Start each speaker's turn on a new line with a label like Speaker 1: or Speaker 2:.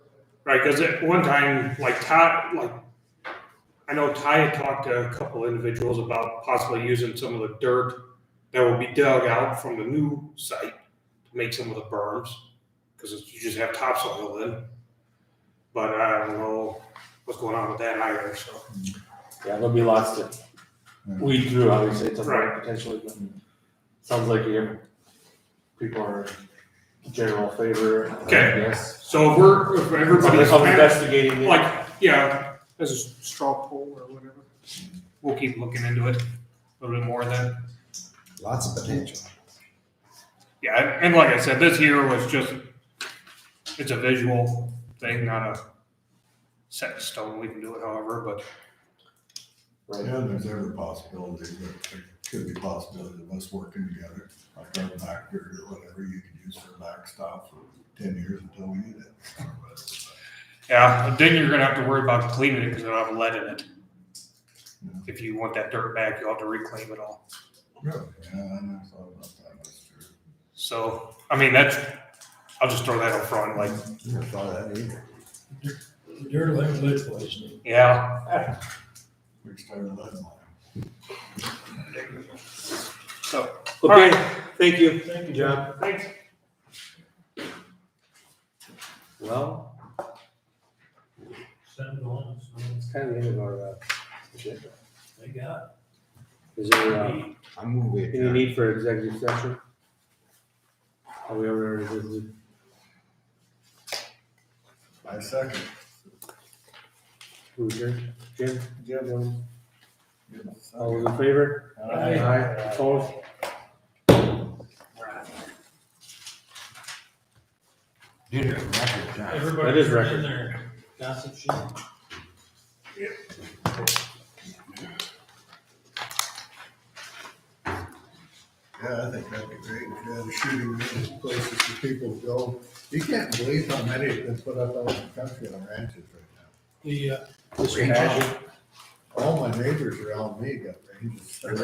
Speaker 1: Right, because at one time, like Ty, like, I know Ty had talked to a couple individuals about possibly using some of the dirt that will be dug out from the new site to make some of the berms, because you just have topsoil then. But I don't know what's going on with that either, so.
Speaker 2: Yeah, there'll be lots to weed through, obviously, at some
Speaker 1: Right.
Speaker 2: point potentially, but sounds like you have, people are in general favor, I
Speaker 1: Okay.
Speaker 2: guess.
Speaker 1: So if we're, if everybody's.
Speaker 2: Of investigating it.
Speaker 1: Like, yeah, as a straw poll or whatever. We'll keep looking into it a little bit more then.
Speaker 3: Lots of potential.
Speaker 1: Yeah, and- and like I said, this here was just, it's a visual thing, not a set in stone. We can do it however, but
Speaker 2: Right,
Speaker 4: Yeah, there's every possibility, but there could be possibility of us working together, like our back or whatever you could use for a backstop for ten years until we need it.
Speaker 1: yeah, but then you're gonna have to worry about cleaning it because it'll have lead in it. If you want that dirt back, you'll have to reclaim it all.
Speaker 4: Really? Yeah, I never thought about that, that's true.
Speaker 1: So, I mean, that's, I'll just throw that up front, like,
Speaker 3: Never thought of that either.
Speaker 5: Dirt like lead poisoning.
Speaker 1: yeah,
Speaker 4: We started a lead mine.
Speaker 1: All right.
Speaker 2: okay, thank you, thank you, John.
Speaker 1: thanks.
Speaker 2: Well,
Speaker 5: Send on, so
Speaker 2: it's kind of the end of our, uh, agenda.
Speaker 5: they got.
Speaker 2: is there, uh,
Speaker 3: I'm gonna wait.
Speaker 2: any need for executive session? Are we ever, is it-
Speaker 4: I second.
Speaker 2: who's here? Jim? Jim.
Speaker 4: You're the second.
Speaker 2: All those in favor?
Speaker 5: Aye.
Speaker 2: Opposed?
Speaker 3: Did it in record time.
Speaker 2: That
Speaker 5: Everybody
Speaker 2: is
Speaker 5: turn
Speaker 2: record.
Speaker 5: in their gossip sheet.
Speaker 4: Yeah, I think that'd be great, yeah, the shooting range places for people to go. You can't believe how many have been put up all over the country on ranches right
Speaker 5: The, uh,
Speaker 2: Mr. Hatch?
Speaker 4: now. All my neighbors around me got ranges.